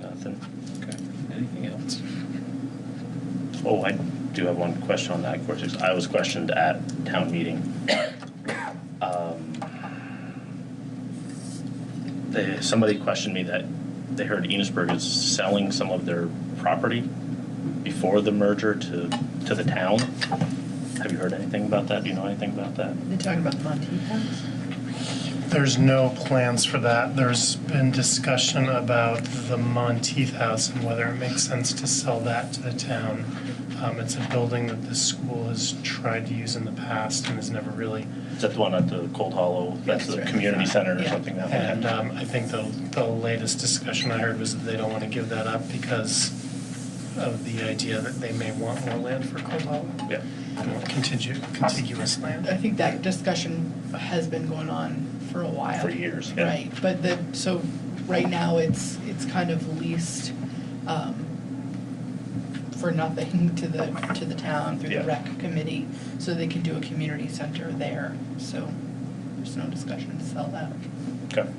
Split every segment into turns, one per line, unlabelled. nothing. Okay. Anything else? Oh, I do have one question on that, of course, it's- I was questioned at town meeting. Um, They, somebody questioned me that they heard Enosburg is selling some of their property before the merger to, to the town. Have you heard anything about that? Do you know anything about that?
They're talking about Montipas?
There's no plans for that. There's been discussion about the Monteith House and whether it makes sense to sell that to the town. Um, It's a building that the school has tried to use in the past and has never really.
Is that the one at the Cold Hollow? That's the
That's right.
community center or
Yeah.
something that one?
And um, I think the, the latest discussion I heard was that they don't want to give that up because of the idea that they may want more land for Cold Hollow.
Yeah.
They want contiguous, contiguous land.
I think that discussion has been going on for a while.
For years, yeah.
Right, but the, so right now it's, it's kind of leased um, for nothing to the, to the town through
Yeah.
the rec committee, so they can do a community center there, so there's no discussion to sell that.
Okay,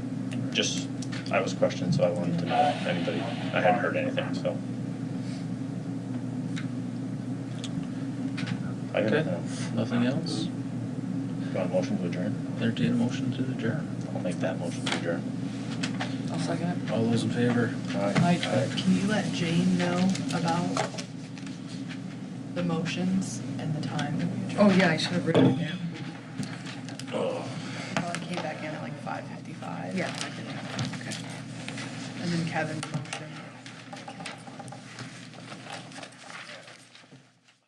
just, I was questioned, so I wanted to know if anybody, I hadn't heard anything, so. I got
Okay.
nothing.
Nothing else?
You want a motion to adjourn?
Entertain a motion to adjourn.
I'll make that motion to adjourn.
I'll second it.
All those in favor?
Mike, can you let Jane know about the motions and the time that we
Oh,
adjourned?
yeah, I should have written it down.
Oh,
Well, it came back in at like five fifty-five.
Yeah.
And then Kevin